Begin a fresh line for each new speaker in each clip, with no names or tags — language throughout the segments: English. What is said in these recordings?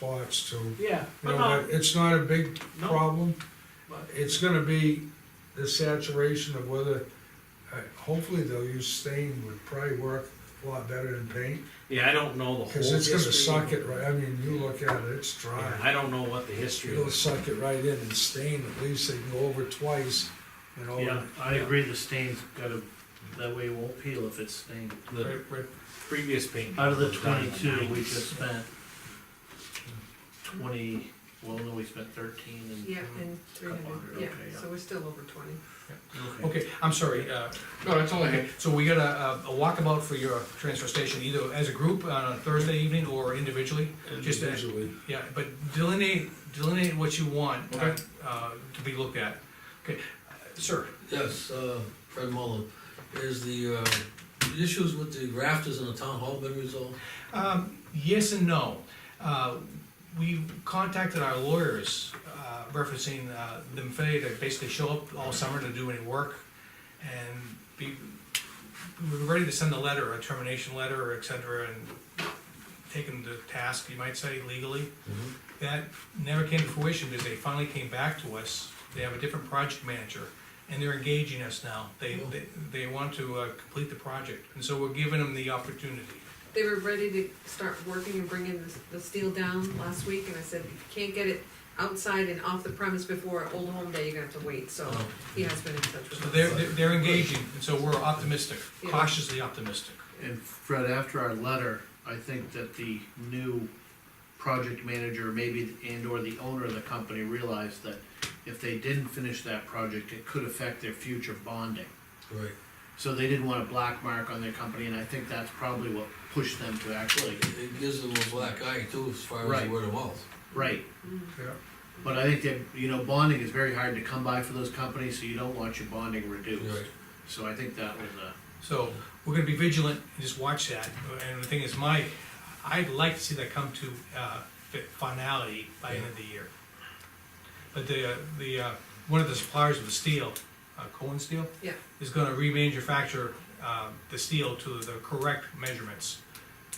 spots to, you
Yeah,
know,
but no,
but it's not a big
No.
problem.
but-
It's gonna be the saturation of whether, uh, hopefully they'll use stain would probably work a lot better than paint.
yeah, I don't know the whole
Cause it's gonna
history.
suck it right, I mean, you look at it, it's
Yeah,
dry.
I don't know what the history
It'll
is.
suck it right in and stain, at least they can go over twice, you know.
Yeah,
and-
I agree, the stain's gotta, that way it won't peel if it's stained.
The
Right, right.
previous paint.
Out of the
was done in
twenty-two, we
90s.
just spent twenty, well, no, we spent thirteen and.
Yeah, and three
Couple
hundred,
hundred,
yeah,
okay, yeah.
so we're still over twenty.
Okay, I'm sorry, uh, no, that's all I had. So we got a, a walkabout for your transfer station, either as a group on a Thursday evening or individually? Just that-
Individually.
Yeah, but delineate, delineate what you want, uh,
Okay.
uh, to be looked at. Okay, uh, sir,
Yes, uh, Fred Mullin, is the, uh, the issues with the rafters in the town hall been resolved?
um, yes and no. Uh, we contacted our lawyers, uh, referencing, uh, the failure to basically show up all summer to do any work and be, we were ready to send a letter, a termination letter, et cetera, and take them to task, you might say legally. That never came to fruition because they finally came back to us. They have a different project manager and they're engaging us now. They, they, they want to, uh, complete the project. And so we're giving them the opportunity.
They were ready to start working and bringing the, the steel down last week, and I said, if you can't get it outside and off the premise before Old Home Day, you're gonna have to wait, so
Oh.
he has been in touch
So
with
they're,
us.
they're they're engaging, and so we're optimistic,
Yeah.
cautiously optimistic.
And Fred, after our letter, I think that the new project manager, maybe, and or the owner of the company realized that if they didn't finish that project, it could affect their future bonding.
Right.
So they didn't want a black mark on their company, and I think that's probably what pushed them to actually,
It gives them a black eye too, as far as
Right.
the word of mouth.
right, Mm-hmm.
Yeah.
But I think that, you know, bonding is very hard to come by for those companies, so you don't want your bonding reduced.
Right.
So I think that was a,
So we're gonna be vigilant and just watch that. And the thing is, my, I'd like to see that come to, uh, fi- finality by end of the year. But the, uh, the, uh, one of the suppliers of the steel, uh, Cohen Steel,
Yeah,
is gonna remanufacture, uh, the steel to the correct measurements.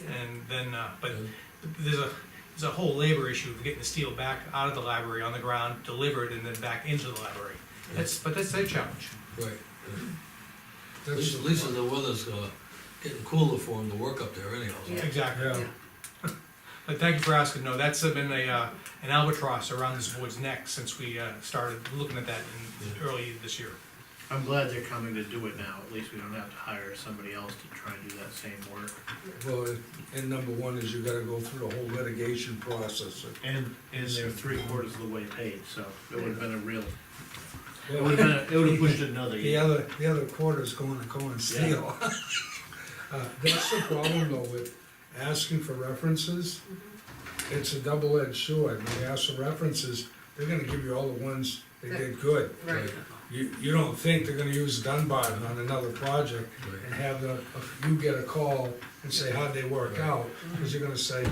yeah.
And then, uh, but
And
there's a, there's a whole labor issue of getting the steel back out of the library on the ground, delivered, and then back into the library. That's, but that's their challenge.
Right. At
That's-
least, at least the weather's, uh, getting cooler for them to work up there anyhow. so-
Yeah.
Exactly.
Yeah.
Yeah.
But thank you for asking, no, that's been a, uh, an albatross around this board's neck since we, uh, started looking at that in, early this year.
I'm glad they're coming to do it now, at least we don't have to hire somebody else to try and do that same work.
Well, and number one is you gotta go through the whole litigation process.
And, and they're three quarters of the way paid, so it would've been a real, it
Well,
would've been, a- it would've pushed it another
The
year.
other, the other quarter's going to Cohen Steel. Uh, That's the problem though with asking for references. It's a double-edged sword. When you ask for references, they're gonna give you all the ones that did good.
Right,
You, you don't think they're gonna use Dunbarton on another project and have the, you get a call and say, how'd they work out? Cause you're gonna say,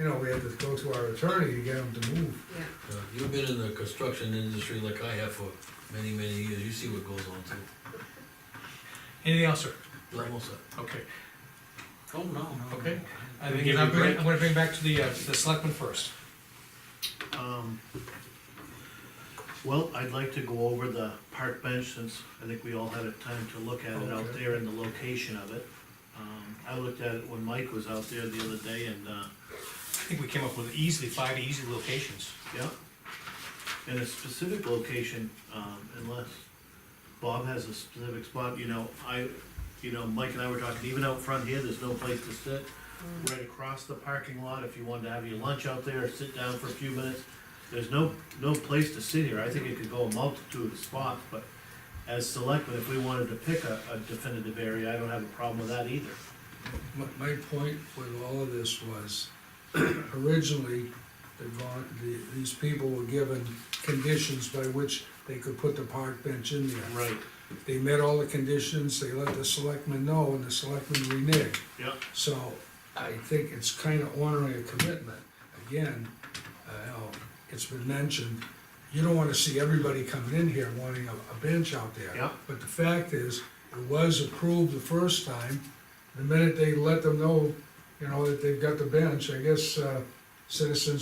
you know, we had to go to our attorney to get them to move.
yeah,
Uh, You've been in the construction industry like I have for many, many years, you see what goes on too.
Anything else, sir?
Almost, uh,
Okay,
Oh, no, no.
Okay. I
Give
think,
you
I'm
a
gonna,
break.
I'm gonna bring back to the, uh, the selectmen first.
Um, Well, I'd like to go over the park bench since I think we all had a time to look at it out
Okay.
there and the location of it. Um, I looked at it when Mike was out there the other day and, uh,
I think we came up with easily five easy locations.
Yeah. In a specific location, um, unless Bob has a specific spot, you know, I, you know, Mike and I were talking, even out front here, there's no place to sit. Right across the parking lot, if you wanted to have your lunch out there, or sit down for a few minutes, there's no, no place to sit here, I think it could go a multitude of spots, but as selectmen, if we wanted to pick a, a definitive area, I don't have a problem with that either.
My, my point with all of this was, originally, the, vol- the, these people were given conditions by which they could put the park bench in there.
Right.
They met all the conditions, they let the selectmen know, and the selectmen reneged.
Yep.
So I think it's kind of honoring a commitment. Again, uh, you know, it's been mentioned, you don't want to see everybody coming in here wanting a, a bench out there.
Yeah.
But the fact is, it was approved the first time. The minute they let them know, you know, that they've got the bench, I guess, uh, citizens